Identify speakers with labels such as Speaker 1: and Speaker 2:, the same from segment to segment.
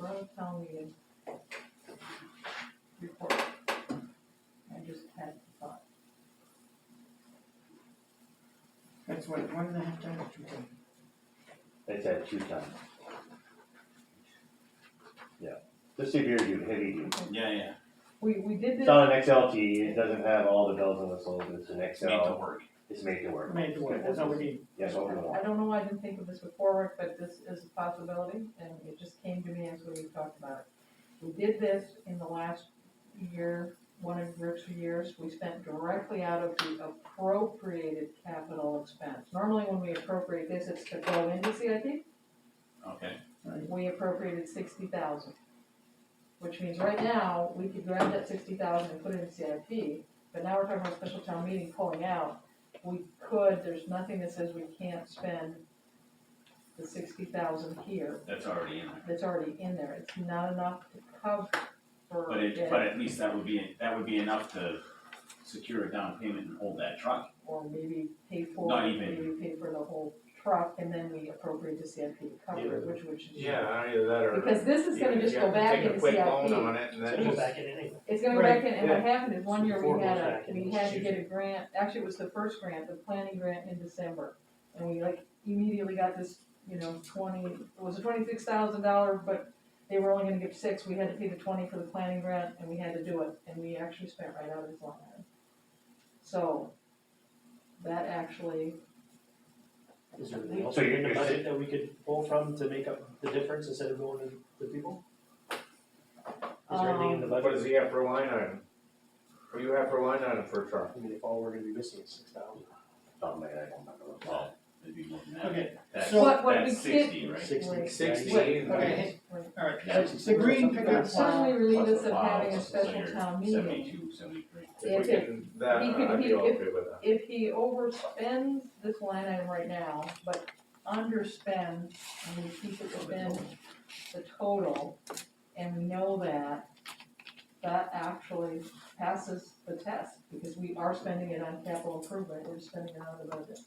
Speaker 1: May town meeting report. I just had the thought.
Speaker 2: That's what, one and a half times, two times.
Speaker 3: It's at two times. Yeah, this severe dude, heavy dude.
Speaker 4: Yeah, yeah,
Speaker 1: We, we did
Speaker 3: It's
Speaker 1: this,
Speaker 3: not an XLT, it doesn't have all the bells and whistles, it's an
Speaker 4: it's made to
Speaker 3: XL,
Speaker 4: work.
Speaker 3: it's made to work.
Speaker 5: Made to work, that's all we need.
Speaker 3: Yes, over the
Speaker 1: I don't know why I didn't think of this before, Rick, but this is a possibility, and it just came to me as we talked about it. We did this in the last year, one of Rick's years, we spent directly out of the appropriated capital expense. Normally, when we appropriate this, it's to go into CIP,
Speaker 4: Okay,
Speaker 1: we appropriated sixty thousand. Which means right now, we could grab that sixty thousand and put it in CIP, but now we're talking about special town meeting pulling out. We could, there's nothing that says we can't spend the sixty thousand here,
Speaker 4: that's already in there.
Speaker 1: that's already in there, it's not enough to cover.
Speaker 4: But it, but at least that would be, that would be enough to secure a down payment and hold that truck.
Speaker 1: Or maybe pay for,
Speaker 4: Not even.
Speaker 1: maybe pay for the whole truck, and then we appropriate to CIP to cover it, which, which is.
Speaker 6: Yeah, either that or.
Speaker 1: Because this is gonna
Speaker 6: you-
Speaker 1: just
Speaker 6: you
Speaker 1: go
Speaker 6: have to
Speaker 1: back into CIP.
Speaker 6: Take a quick loan on it and
Speaker 5: So
Speaker 6: then
Speaker 5: go
Speaker 6: just.
Speaker 5: back in anyway.
Speaker 1: It's gonna go
Speaker 5: Right,
Speaker 1: back in, and what happened is, one year we had
Speaker 5: Before it
Speaker 1: a,
Speaker 5: goes back in,
Speaker 1: we had to
Speaker 5: shoot.
Speaker 1: get a grant, actually, it was the first grant, the planning grant in December. And we like immediately got this, you know, twenty, it was a twenty-six thousand dollar, but they were only gonna give six, we had to pay the twenty for the planning grant, and we had to do it, and we actually spent right out of this line item. So, that actually,
Speaker 5: Is there anything else
Speaker 3: So you're-
Speaker 5: in the
Speaker 3: you're-
Speaker 5: budget that we could pull from to make up the difference instead of going to the people? Is there anything in
Speaker 1: Um,
Speaker 5: the
Speaker 6: What
Speaker 5: budget,
Speaker 6: does he have for a line item? What do you have for a line item for a truck?
Speaker 5: I mean, if all we're gonna be missing is six thousand.
Speaker 3: Oh, man, I don't remember.
Speaker 4: Well, it'd be more than that.
Speaker 5: Okay,
Speaker 4: That's,
Speaker 2: so-
Speaker 1: What- what we
Speaker 4: that's sixty,
Speaker 1: can't-
Speaker 4: right?
Speaker 1: Wait,
Speaker 5: Sixty.
Speaker 6: Sixty.
Speaker 1: wait,
Speaker 2: okay.
Speaker 1: wait.
Speaker 2: All right,
Speaker 4: Yeah.
Speaker 2: the green pickup,
Speaker 1: certainly relieve us of having a
Speaker 4: Plus the plows, so
Speaker 1: special
Speaker 4: you're
Speaker 1: town meeting.
Speaker 4: Seventy-two, seventy-three.
Speaker 1: Yeah,
Speaker 6: If we
Speaker 1: okay.
Speaker 6: can, that,
Speaker 1: He could-
Speaker 6: I'd
Speaker 1: he
Speaker 6: be
Speaker 1: could-
Speaker 6: okay with that.
Speaker 1: if he overspends this line item right now, but underspends, and we keep it within the total, and we know that, that actually passes the test, because we are spending it on capital improvement, we're spending it on the budget.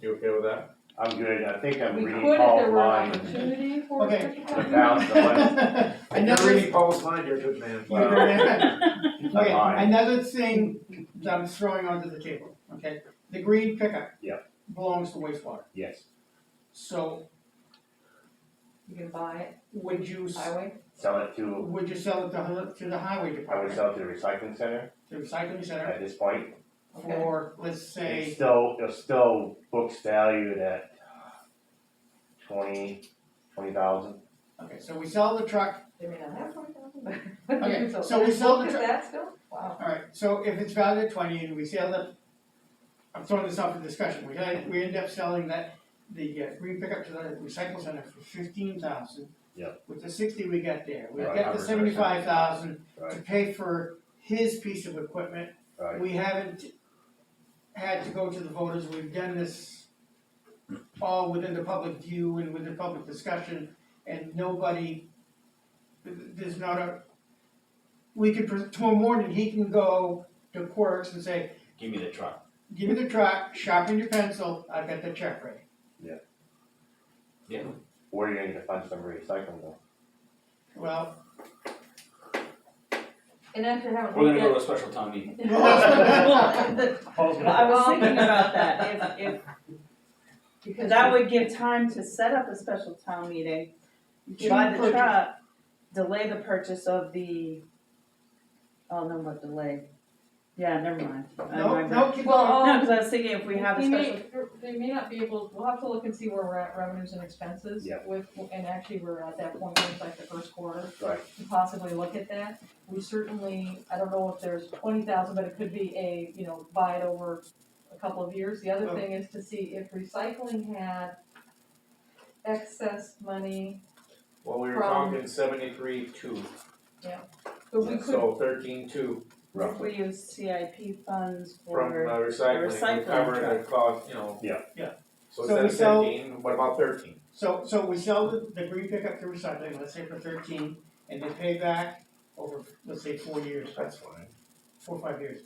Speaker 6: You okay with that?
Speaker 3: I'm good, I think I'm
Speaker 1: We
Speaker 3: reading
Speaker 1: could if there
Speaker 3: Paul's
Speaker 1: were an
Speaker 3: line
Speaker 1: opportunity for
Speaker 2: Okay.
Speaker 1: such a
Speaker 3: about the money.
Speaker 6: You're
Speaker 2: another,
Speaker 6: reading Paul's mind, you're a good man.
Speaker 2: okay,
Speaker 3: Fine.
Speaker 2: another thing that I'm throwing onto the table, okay? The green pickup.
Speaker 3: Yeah.
Speaker 2: Belongs to wastewater,
Speaker 3: Yes,
Speaker 2: so
Speaker 1: You can buy
Speaker 2: would you,
Speaker 1: it
Speaker 2: s-
Speaker 1: highway,
Speaker 3: sell it to,
Speaker 2: would you sell it to, hi- to the highway
Speaker 3: I would
Speaker 2: department,
Speaker 3: sell it to the recycling center
Speaker 2: the recycling center,
Speaker 3: at this point.
Speaker 1: okay,
Speaker 2: for, let's
Speaker 3: It's
Speaker 2: say,
Speaker 3: still, it's still books valued at twenty, twenty thousand.
Speaker 2: okay, so we sell the truck
Speaker 1: they may not have twenty thousand,
Speaker 2: Okay,
Speaker 1: but.
Speaker 2: so we sold the
Speaker 1: Look at
Speaker 2: tr-
Speaker 1: that still, wow,
Speaker 2: Alright, so if it's valued at twenty and we sell the, I'm throwing this out for discussion, we, had- we end up selling that, the uh, green pickup to the recycle center for fifteen thousand.
Speaker 3: Yep.
Speaker 2: With the sixty we got there, we
Speaker 3: Right,
Speaker 2: get the
Speaker 6: covers our
Speaker 2: seventy-five thousand to
Speaker 3: Right.
Speaker 2: pay for his piece of equipment.
Speaker 3: Right.
Speaker 2: We haven't had to go to the voters, we've done this all within the public view and within public discussion, and nobody, th- there's not a, we could, pres- tomorrow morning, he can go to Quercs and say,
Speaker 4: Give me the truck.
Speaker 2: give me the truck, sharpen your pencil, I've got the check ready.
Speaker 3: Where are you gonna get the funds from recycling though?
Speaker 2: Well,
Speaker 1: and after having.
Speaker 4: We're gonna
Speaker 1: looked
Speaker 4: go to a special town meeting.
Speaker 1: at-
Speaker 2: Well,
Speaker 7: the-
Speaker 5: Paul's
Speaker 7: Well, I
Speaker 5: gonna,
Speaker 7: was thinking about that, if, if,
Speaker 1: Because
Speaker 7: that would give time to set up a special town meeting, buy the
Speaker 2: June
Speaker 7: truck, delay the purchase of the, oh, no, what delay? Yeah, never mind. I
Speaker 2: no,
Speaker 7: remember.
Speaker 2: no, keep
Speaker 1: Well,
Speaker 2: going.
Speaker 1: uh,
Speaker 7: No, cause I was thinking if we have a
Speaker 1: They may-
Speaker 7: special,
Speaker 1: They may not be able, we'll have to look and see where we're at revenues and expenses
Speaker 3: Yeah.
Speaker 1: with, and actually, we're at that point, where it's like the first quarter,
Speaker 3: Right,
Speaker 1: to possibly look at that. We certainly, I don't know if there's twenty thousand, but it could be a, you know, buy it over a couple of years. The
Speaker 3: Oh.
Speaker 1: other
Speaker 2: Well-
Speaker 1: thing is to see if recycling had excess money,
Speaker 6: Well, we were
Speaker 1: From-
Speaker 6: talking seventy-three two,
Speaker 1: but we could,
Speaker 6: so thirteen two
Speaker 3: roughly.
Speaker 7: if we use CIP funds
Speaker 6: from
Speaker 7: for,
Speaker 6: uh, recycling, we
Speaker 7: recycling
Speaker 6: covered the
Speaker 7: truck.
Speaker 6: cost, you know.
Speaker 3: Yeah.
Speaker 2: Yeah. So
Speaker 6: So instead
Speaker 2: we
Speaker 6: of
Speaker 2: sell-
Speaker 6: fifteen, what about thirteen?
Speaker 2: So, so we sell the, the green pickup to recycling, let's say for thirteen, and they pay back over, let's say, four years,
Speaker 6: That's fine.
Speaker 2: four, or five years.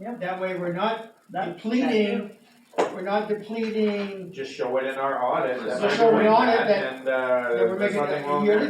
Speaker 7: Yeah.
Speaker 2: That way, we're not
Speaker 7: that,
Speaker 2: depleting, we're not depleting
Speaker 6: Just show it in our audit.
Speaker 4: Just
Speaker 6: that's
Speaker 2: show
Speaker 6: what
Speaker 2: it
Speaker 6: we
Speaker 2: on it
Speaker 6: had,
Speaker 2: that-
Speaker 6: And, uh,
Speaker 2: that we're
Speaker 6: there's
Speaker 2: making
Speaker 6: nothing
Speaker 2: a
Speaker 6: wrong
Speaker 2: yearly
Speaker 6: there.